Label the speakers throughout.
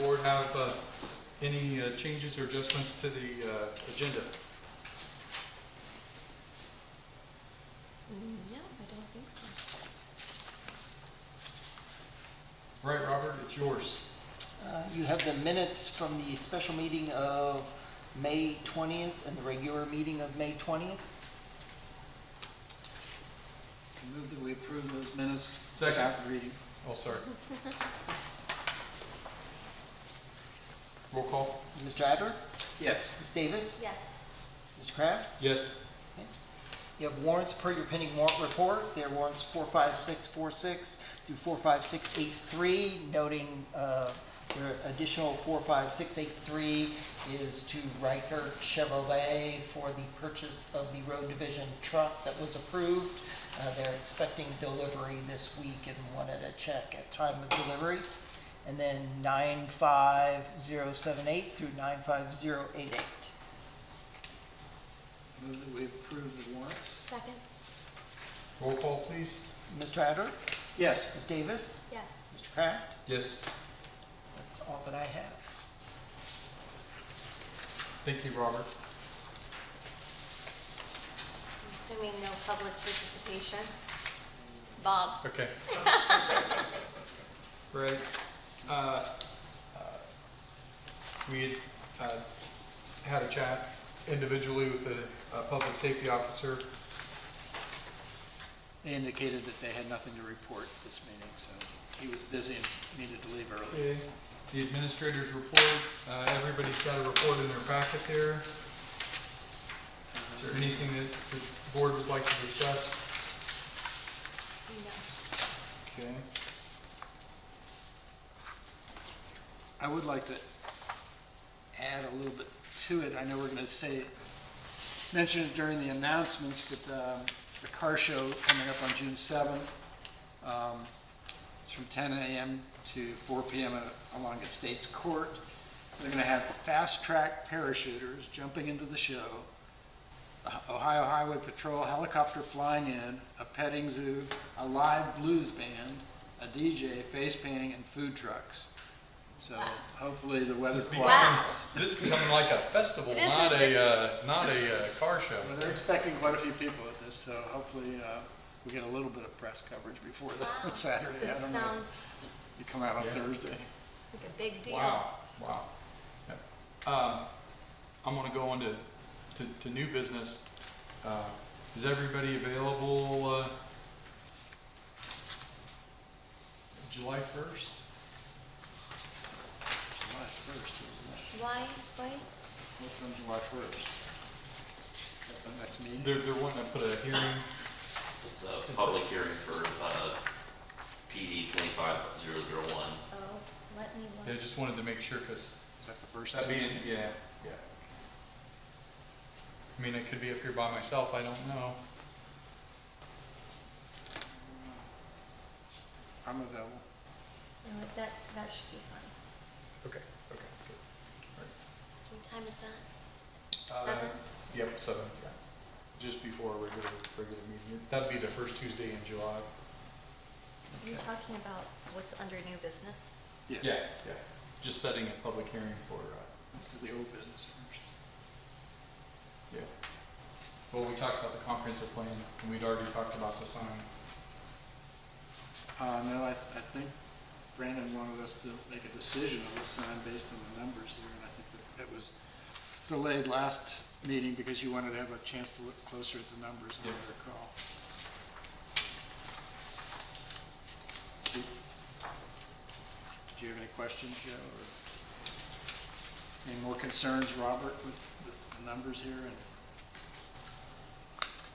Speaker 1: board have uh, any uh, changes or adjustments to the uh, agenda?
Speaker 2: No, Mm, I don't think so.
Speaker 1: Right, Robert, it's yours.
Speaker 3: Uh, You have the minutes from the special meeting of May 20th and the regular meeting of May 20th.
Speaker 4: Move that we approve those minutes.
Speaker 1: Second.
Speaker 4: Without reading.
Speaker 1: Oh, sorry. Roll call?
Speaker 3: Mr. Adler,
Speaker 4: Yes.
Speaker 3: Ms. Davis,
Speaker 2: Yes.
Speaker 3: Mr. Kraft.
Speaker 1: Yes.
Speaker 3: You have warrants per your pending warrant report. There are warrants 45646 through 45683, noting uh, there are additional 45683 is to Riker Chevrolet for the purchase of the road division truck that was approved. Uh, They're expecting delivery this week and wanted a check at time of delivery. And then 95078 through 95088.
Speaker 4: Move that we approve the warrants.
Speaker 2: Second?
Speaker 1: Roll call, please?
Speaker 3: Mr. Adler,
Speaker 4: Yes.
Speaker 3: Ms. Davis,
Speaker 2: Yes.
Speaker 3: Mr. Kraft.
Speaker 1: Yes.
Speaker 3: That's all that I have.
Speaker 1: Thank you, Robert.
Speaker 2: I'm Assuming no public participation. Bob?
Speaker 1: Okay. Right. Uh, uh, We had uh, had a chat individually with the uh, public safety officer.
Speaker 4: They indicated that they had nothing to report this meeting, so he was busy and needed to leave early.
Speaker 1: Okay. The administrator's report, uh, everybody's got a report in their packet there. Is there anything that the board would like to discuss?
Speaker 2: No.
Speaker 1: Okay.
Speaker 4: I would like to add a little bit to it. I know we're going to say, mention it during the announcements, but um, the car show coming up on June 7th. um, It's from 10 a.m. to 4 p.m. at- along Estates Court. They're going to have fast-track parachuters jumping into the show, a- Ohio Highway Patrol helicopter flying in, a petting zoo, a live blues band, a DJ, face painting, and food trucks. So hopefully the weather
Speaker 1: This is
Speaker 4: cooperates.
Speaker 1: becoming, this is becoming like a festival,
Speaker 2: It is,
Speaker 1: not
Speaker 2: it's-
Speaker 1: a, uh, not a uh, car show.
Speaker 4: Well, they're expecting quite a few people at this, so hopefully uh, we get a little bit of press coverage before
Speaker 2: Wow.
Speaker 4: the Saturday. I
Speaker 2: That
Speaker 4: don't know.
Speaker 2: sounds
Speaker 4: You come out on
Speaker 1: Yeah.
Speaker 4: Thursday.
Speaker 2: like a big deal.
Speaker 1: Wow, wow. Yep. Um, I'm gonna go on to, to, to new business. Uh, Is everybody available, uh, July first?
Speaker 4: July 1st, isn't
Speaker 2: Why, why?
Speaker 4: it? What's on July 1st? Is that the next meeting?
Speaker 1: They're, they're wanting to put a hearing,
Speaker 5: It's a public hearing for uh, PD 25001.
Speaker 2: Oh, let me
Speaker 1: they
Speaker 2: look.
Speaker 1: just wanted to make sure, cause
Speaker 4: Is that the first
Speaker 1: that being,
Speaker 4: Tuesday?
Speaker 1: yeah, yeah. I mean, I could be up here by myself, I don't know.
Speaker 4: I'm available.
Speaker 2: No, That, that should be fine.
Speaker 1: Okay, okay.
Speaker 2: What time is that?
Speaker 1: Uh,
Speaker 2: Seven?
Speaker 1: Yep, seven, yeah. Just before a regular, regular meeting. That'd be the first Tuesday in July.
Speaker 2: Are you talking about what's under new business?
Speaker 1: Yeah, yeah. Just setting a public hearing for, uh,
Speaker 4: To the old business first.
Speaker 1: yeah. Well, we talked about the comprehensive plan, and we'd already talked about the sign.
Speaker 4: Uh, no, I, I think Brandon wanted us to make a decision on this sign based on the numbers here, and I think that it was delayed last meeting because you wanted to have a chance to look closer at the numbers, and
Speaker 1: Yeah.
Speaker 4: I recall. Do you have any questions, Joe, or any more concerns, Robert, with the- the numbers here? And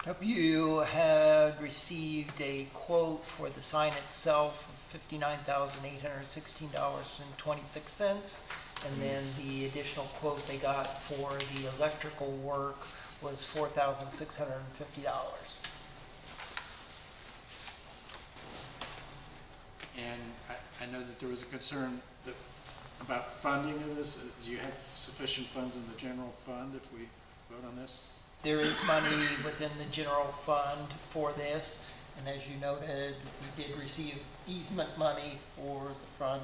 Speaker 3: Hope you had received a quote for the sign itself of $59,816.26. And then the additional quote they got for the electrical work was $4,650.
Speaker 4: And I, I know that there was a concern that, about funding of this. Uh, Do you have sufficient funds in the general fund if we vote on this?
Speaker 3: There is money within the general fund for this. And as you noted, we did receive easement money for the front